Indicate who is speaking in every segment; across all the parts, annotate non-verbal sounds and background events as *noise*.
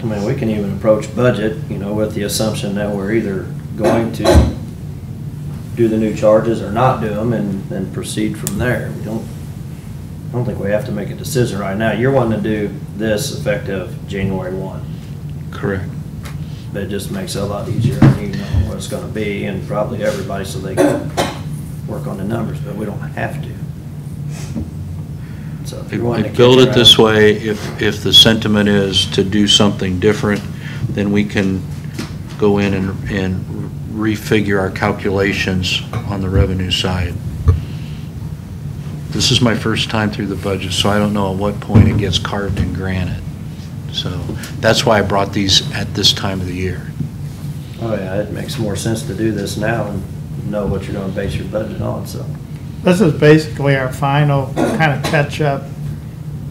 Speaker 1: I mean, we can even approach budget, you know, with the assumption that we're either going to do the new charges or not do them and then proceed from there. We don't, I don't think we have to make a decision right now. You're wanting to do this effective January one.
Speaker 2: Correct.
Speaker 1: But it just makes it a lot easier and you know what it's gonna be and probably everybody so they can work on the numbers, but we don't have to. So if
Speaker 2: They
Speaker 1: you're wanting to.
Speaker 2: Build
Speaker 1: kick
Speaker 2: it this
Speaker 1: around-
Speaker 2: way, if, if the sentiment is to do something different, then we can go in and, and refigure our calculations on the revenue side. This is my first time through the budget, so I don't know at what point it gets carved in granite. So that's why I brought these at this time of the year.
Speaker 1: Oh, yeah, it makes more sense to do this now and know what you're gonna base your budget on, so.
Speaker 3: This is basically our final kind of catch-up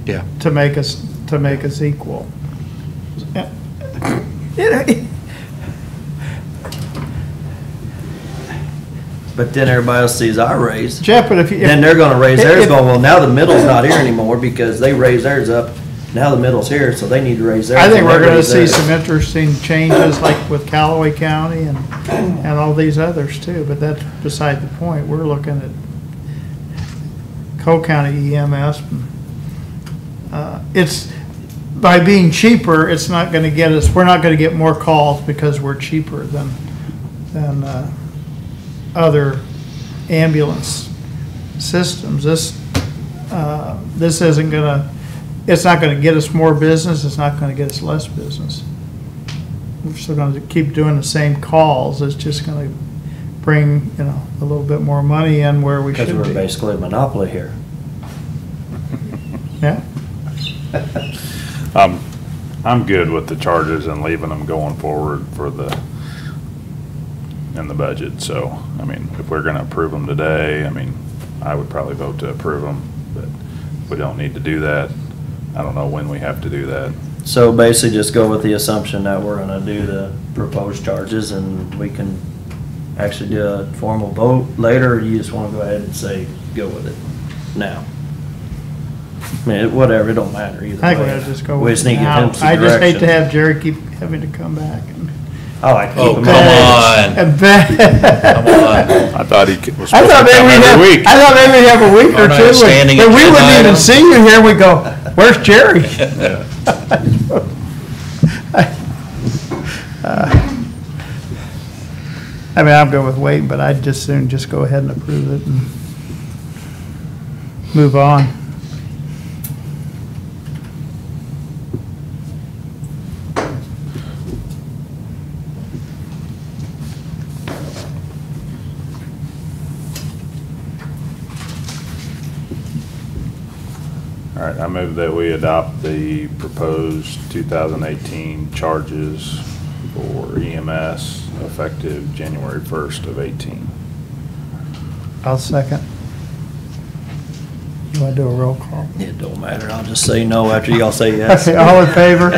Speaker 2: Yeah.
Speaker 3: to make us, to make us equal. It-
Speaker 1: But then everybody else sees our raise,
Speaker 3: Jeff, but if you.
Speaker 1: then they're gonna raise
Speaker 3: if-
Speaker 1: theirs,
Speaker 3: if-
Speaker 1: going, well, now the middle's not here anymore because they raised theirs up. Now the middle's here, so they need to raise theirs.
Speaker 3: I think
Speaker 1: and
Speaker 3: we're
Speaker 1: they
Speaker 3: gonna
Speaker 1: raise
Speaker 3: see
Speaker 1: theirs.
Speaker 3: some interesting changes like with Callaway County and, and all these others too, but that's beside the point. We're looking at Cole County EMS. Uh, It's, by being cheaper, it's not gonna get us, we're not gonna get more calls because we're cheaper than, than, uh, other ambulance systems. This, uh, this isn't gonna, it's not gonna get us more business, it's not gonna get us less business. We're still gonna keep doing the same calls, it's just gonna bring, you know, a little bit more money in where we should
Speaker 1: Cause
Speaker 3: be.
Speaker 1: we're basically a monopoly here.
Speaker 3: Yeah,
Speaker 4: I'm, I'm good with the charges and leaving them going forward for the, in the budget, so, I mean, if we're gonna approve them today, I mean, I would probably vote to approve them, but we don't need to do that. I don't know when we have to do that.
Speaker 1: So basically just go with the assumption that we're gonna do the proposed charges and we can actually do a formal vote later, or you just wanna go ahead and say, go with it now? I mean, it- whatever, it don't matter either way.
Speaker 3: I think we gotta just go.
Speaker 1: We
Speaker 3: with
Speaker 1: just
Speaker 3: it
Speaker 1: need to get
Speaker 3: now.
Speaker 1: them some
Speaker 3: I just hate to
Speaker 1: direction.
Speaker 3: have Jerry keep having to come back and.
Speaker 1: I like to keep
Speaker 2: Oh,
Speaker 1: them
Speaker 2: come
Speaker 1: all.
Speaker 2: on.
Speaker 3: *laughs* And back.
Speaker 2: Come on.
Speaker 4: I thought he was
Speaker 3: I
Speaker 4: supposed to
Speaker 3: thought
Speaker 4: come
Speaker 3: maybe we'd have,
Speaker 4: every week.
Speaker 3: I thought maybe we'd have a week or
Speaker 2: Aren't I
Speaker 3: two, and
Speaker 2: standing
Speaker 3: and we
Speaker 2: agenda
Speaker 3: wouldn't even
Speaker 2: item?
Speaker 3: see you *laughs* here, we go, where's Jerry? I mean, I'm good with waiting, but I'd just soon just go ahead and approve it and move on.
Speaker 4: All right, I move that we adopt the proposed 2018 charges for EMS effective January 1st of 18.
Speaker 3: I'll second. You wanna do a roll call?
Speaker 1: It don't matter, I'll just say no after y'all
Speaker 3: *laughs*
Speaker 1: say yes.
Speaker 3: All in
Speaker 1: *laughs*
Speaker 3: favor?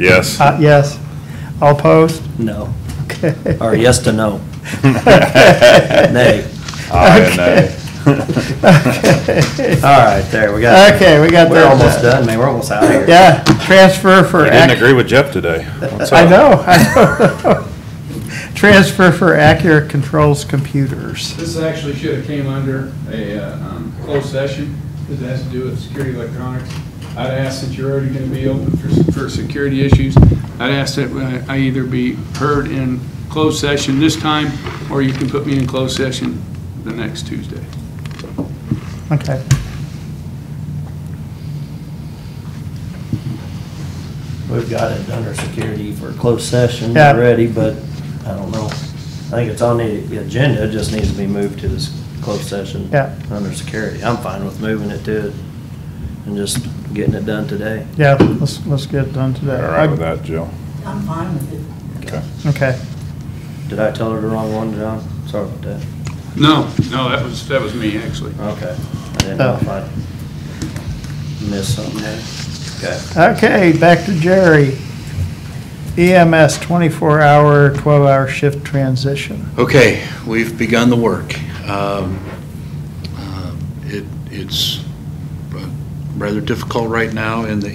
Speaker 4: Yes.
Speaker 3: Uh, yes. All opposed?
Speaker 1: No,
Speaker 3: Okay.
Speaker 1: or yes
Speaker 3: *laughs*
Speaker 1: to no, nay.
Speaker 4: Aye and nay.
Speaker 3: Okay.
Speaker 1: All right, there, we got.
Speaker 3: Okay, we got
Speaker 1: We're
Speaker 3: that
Speaker 1: almost
Speaker 3: done.
Speaker 1: done, man, we're almost out of here.
Speaker 3: Yeah, transfer for.
Speaker 4: I didn't
Speaker 3: ac-
Speaker 4: agree with Jeff today. What's
Speaker 3: Uh, I
Speaker 4: up?
Speaker 3: know, I know. Transfer for Accurate Controls Computers.
Speaker 5: This actually should have came under a uh, um, closed session, because it has to do with security electronics. I'd ask that you're already going to be open for, for security issues. I'd ask that uh, I- I either be heard in closed session this time, or you can put me in closed session the next Tuesday.
Speaker 3: Okay.
Speaker 1: *laughs* We've got it under security for closed session
Speaker 3: Yeah.
Speaker 1: already, but I don't know. I think it's on the agenda, it just needs to be moved to this closed session.
Speaker 3: Yeah.
Speaker 1: Under security. I'm fine with moving it to, it and just getting it done today.
Speaker 3: Yeah, let's, let's get it done today.
Speaker 4: All right with that, Jill?
Speaker 6: I'm fine with it.
Speaker 4: Okay.
Speaker 3: Okay.
Speaker 1: Did I tell her the wrong one, John? Sorry about that.
Speaker 5: No, no, that was, that was me, actually.
Speaker 1: Okay. I didn't know if I missed something there. Okay.
Speaker 3: Okay, back to Jerry. E EMS 24-hour, 12-hour shift transition.
Speaker 2: Okay, we've begun the work. Um, uh, It, it's uh, rather difficult right now in the